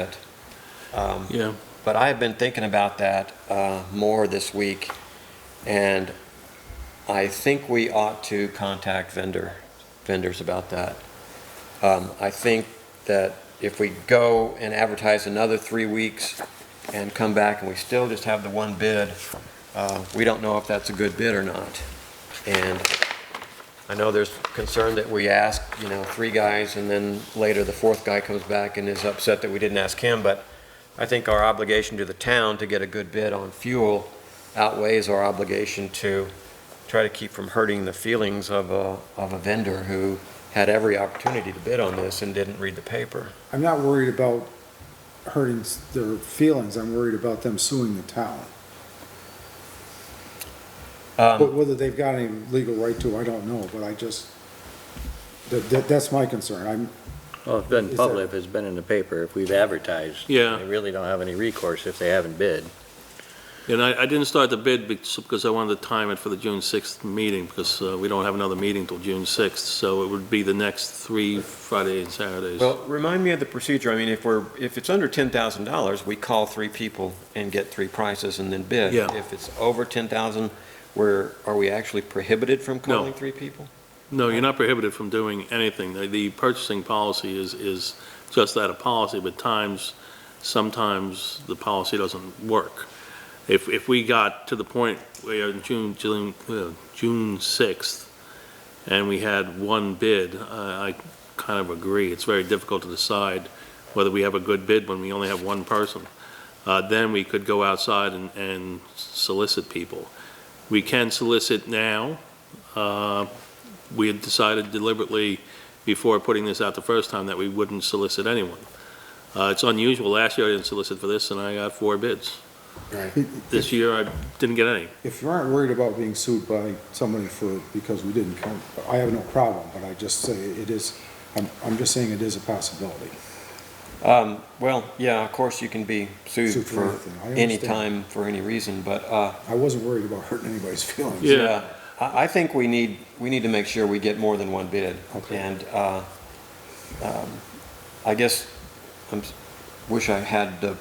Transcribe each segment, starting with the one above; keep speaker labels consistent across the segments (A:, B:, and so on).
A: it.
B: Yeah,
A: But I have been thinking about that uh, more this week, and I think we ought to contact vendor, vendors about that. Um, I think that if we go and advertise another three weeks and come back and we still just have the one bid, uh, we don't know if that's a good bid or not. And I know there's concern that we ask, you know, three guys, and then later the fourth guy comes back and is upset that we didn't ask him, but I think our obligation to the town to get a good bid on fuel outweighs our obligation to try to keep from hurting the feelings of a, of a vendor who had every opportunity to bid on this and didn't read the paper.
C: I'm not worried about hurting s- their feelings, I'm worried about them suing the town.
B: Um,
C: But whether they've got any legal right to, I don't know, but I just, that, that, that's my concern, I'm,
D: Well, it's been
C: Is
D: public,
C: there-
D: if it's been in the paper, if we've advertised.
B: Yeah.
D: They really don't have any recourse if they haven't bid.
B: and I, I didn't start the bid because I wanted to time it for the June 6th meeting, because uh, we don't have another meeting till June 6th, so it would be the next three Friday and Saturdays.
A: Well, remind me of the procedure. I mean, if we're, if it's under ten thousand dollars, we call three people and get three prices and then bid.
B: Yeah.
A: If it's over ten thousand, we're, are we actually prohibited from
B: No.
A: calling three people?
B: No, you're not prohibited from doing anything. The- The purchasing policy is, is just that, a policy, but times, sometimes the policy doesn't work. If, if we got to the point where in June, June, uh, June 6th, and we had one bid, I I kind of agree, it's very difficult to decide whether we have a good bid when we only have one person. Uh, Then we could go outside and- and solicit people. We can solicit now, uh, we had decided deliberately before putting this out the first time that we wouldn't solicit anyone. Uh, It's unusual. Last year I didn't solicit for this, and I got four bids. This year I didn't get any.
C: if you aren't worried about being sued by somebody for, because we didn't come, I have no problem, but I just say it is, I'm, I'm just saying it is a possibility.
A: Um, well, yeah, of course, you can be sued
C: Sued for
A: for
C: anything. I
A: any
C: understand.
A: time, for any reason, but, uh,
C: I wasn't worried about hurting anybody's feelings.
B: Yeah.
A: yeah, I, I think we need, we need to make sure we get more than one bid.
C: Okay.
A: And, uh, um, I guess, I'm, s- wish I had the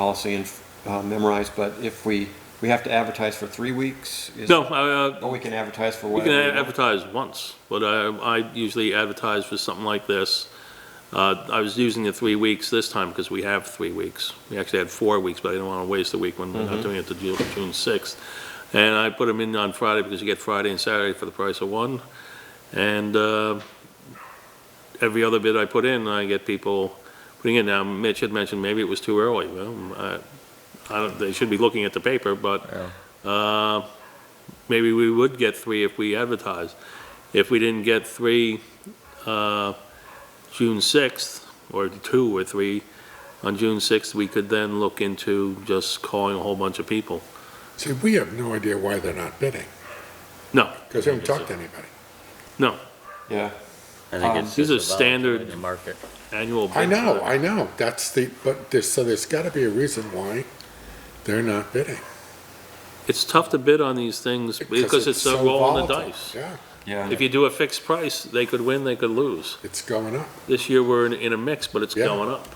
A: policy and, uh, memorized, but if we, we have to advertise for three weeks? is-
B: No, I, uh,
A: Or we can advertise for
B: We can
A: whatever. we want?
B: advertise once, but I, I usually advertise for something like this. Uh, I was using the three weeks this time because we have three weeks. We actually had four weeks, but I didn't want to waste a week when
A: Mm-hmm.
B: we're not doing it to June, June sixth. And I put them in on Friday because you get Friday and Saturday for the price of one. And, uh, every other bid I put in, I get people putting in. Now, Mitch had mentioned maybe it was too early. Well, I, I don't, they should be looking at the paper, but, uh, maybe we would get three if we advertised. If we didn't get three, uh, June sixth, or two or three on June sixth, we could then look into just calling a whole bunch of people.
E: See, we have no idea why they're not bidding,
B: No.
E: because they haven't talked to anybody.
A: Yeah.
D: I
A: Um,
D: think it's
B: these
D: just
B: are
D: a volatility in
B: standard-
D: the market.
B: Annual bid.
E: I know,
B: for-
E: I know, that's the, but there's, so there's gotta be a reason why they're not bidding.
B: It's tough to bid on these things because it's a
E: so
B: roll in the
E: volatile.
B: dice.
E: Yeah,
A: Yeah.
B: If you do a fixed price, they could win, they could lose.
E: it's going up,
B: This year, we're in, in a mix, but it's
E: Yeah.
B: going up.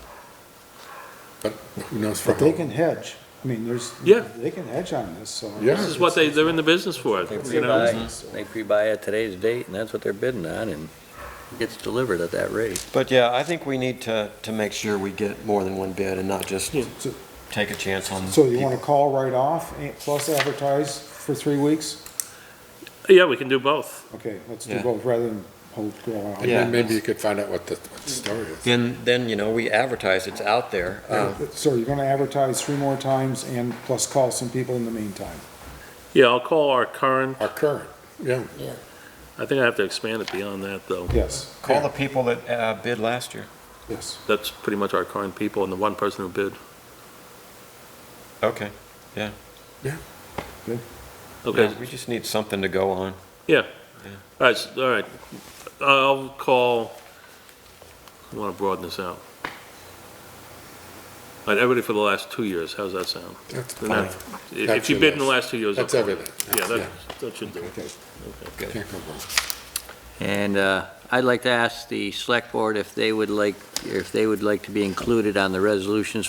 E: but who knows for
C: But they
E: how,
C: can hedge, I mean, there's,
B: Yeah.
C: they can hedge on this, so.
E: Yeah.
B: This is what they, they're in the business for,
D: They
B: you know?
D: pre-buy, they pre-buy at today's date, and that's what they're bidding on, and it gets delivered at that rate.
A: But yeah, I think we need to, to make sure we get more than one bid and not just
B: Yeah.
A: take a chance on.
C: So you
A: people.
C: wanna call right off, eh, plus advertise for three weeks?
B: Yeah, we can do both.
C: Okay, let's
A: Yeah.
C: do both rather than uh, hold, go out.
E: and
A: Yeah.
E: then maybe you could find out what the, what the story is.
A: Then, then, you know, we advertise, it's out there. Uh,
C: So you're gonna advertise three more times and plus call some people in the meantime.
B: Yeah, I'll call our current
E: Our current, yeah,
B: I think I have to expand it beyond that, though.
C: Yes,
A: Call the people that uh, bid last year.
C: yes.
B: That's pretty much our current people and the one person who bid.
A: Okay.
B: Okay,
A: We just need something to go on.
B: all right, s- all right. I'll call, I want to broaden this out. All right, everybody for the last two years, how's that sound?
E: that's
B: And
E: fine,
B: that- If if
E: That's
B: you
E: your
B: bid in the
E: list.
B: last two years.
E: that's
B: I'll-
E: everything.
B: Yeah, that, that should do it.
C: Okay.
E: Can't go wrong.
D: And uh, I'd like to ask the select board if they would like, if they would like to be included on the resolutions